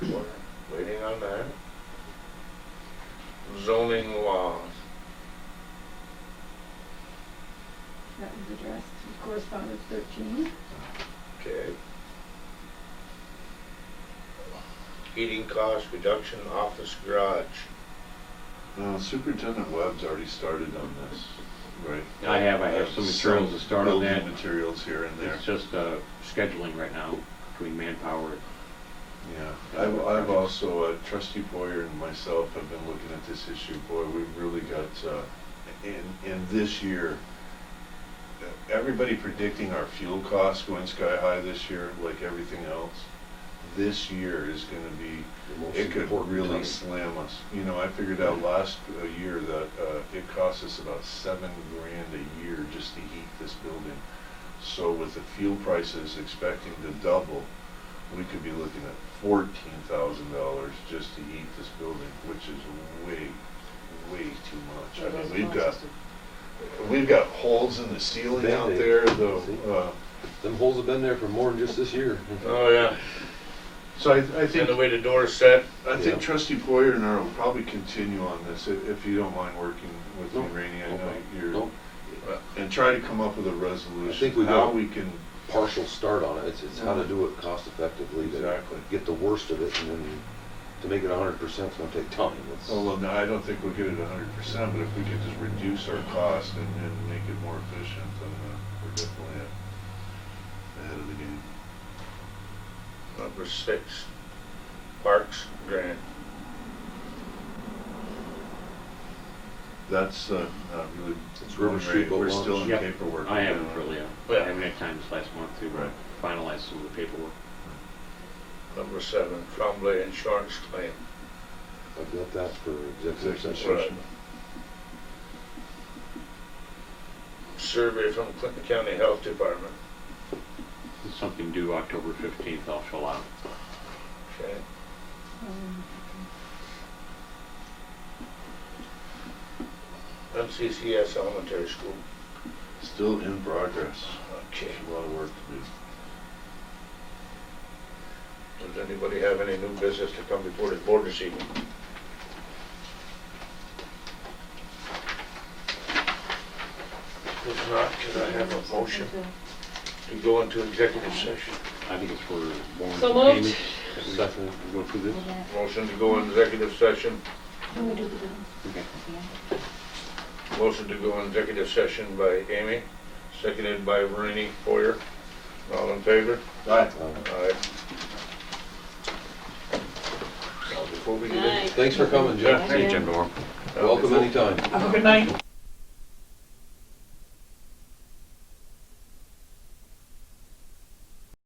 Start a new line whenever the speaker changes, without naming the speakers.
anything on there. Zoning laws.
That was addressed in correspondence thirteen.
Okay. Heating cost reduction office garage.
Now, Superintendent Webb's already started on this, right?
I have, I have some materials to start on that.
Building materials here and there,
It's just uh, scheduling right now between manpower.
yeah. I've, I've also, uh, trustee Boyer and myself have been looking at this issue, boy, we've really got, uh, in, in this year, uh, everybody predicting our fuel costs going sky high this year, like everything else. This year is gonna be
The most
It could
important
really
time.
slam us. You know, I figured out last uh, year that uh, it cost us about seven grand a year just to heat this building. So with the fuel prices expecting to double, we could be looking at fourteen thousand dollars just to heat this building, which is way, way too much. I mean, we've got, we've got holes in the ceiling out
Band-Aid.
there, though.
See?
uh,
Them holes have been there for more than just this year.
Oh, yeah,
So I, I think.
and the way the door's set,
I
Yeah.
think trustee Poyer and I will probably continue on this, i- if you don't mind working with me,
Nope.
Rainey, I
Nope.
know you're, uh,
Nope.
and try to come up with a resolution,
we
how
will.
we can,
Partial start on it. It's, it's how to do it cost effectively. to
Exactly.
Get the worst of it and then to make it hundred percent is gonna take time. It's-
although, no, I don't think we'll get it a hundred percent, but if we could just reduce our cost and, and make it more efficient, then uh, we're definitely a- ahead of the game.
number six, parks grant.
That's, uh, not really.
It's River Street Boat
We're still in
Launch. Yep.
paperwork.
I haven't
now.
really, uh,
Yeah.
I haven't had time this last month to uh,
Right.
finalize some of the paperwork.
Number seven, Trombley insurance claim.
I've got that for executive
Executive
session.
session.
Survey from Clinton County Health Department.
It's something due October 15th, I'll fill out.
Okay.
Um,
MCCS Elementary School.
Still in progress,
Okay.
there's a lot of work to do.
Does anybody have any new business to come before the board this evening? If not, can I have a motion to go into executive session?
I think it's for warrants
So
and
moved.
payments.
Second.
Go through this?
Motion to go into executive session,
Can we do the
Okay.
motion to go into executive session by Amy, seconded by Rainey Foyer. All in favor?
Um,
Aye. Now, before we get in-
Nice.
Thanks for coming, Jeff.
Jim
Now,
Welcome
before-
anytime.
Have a good night.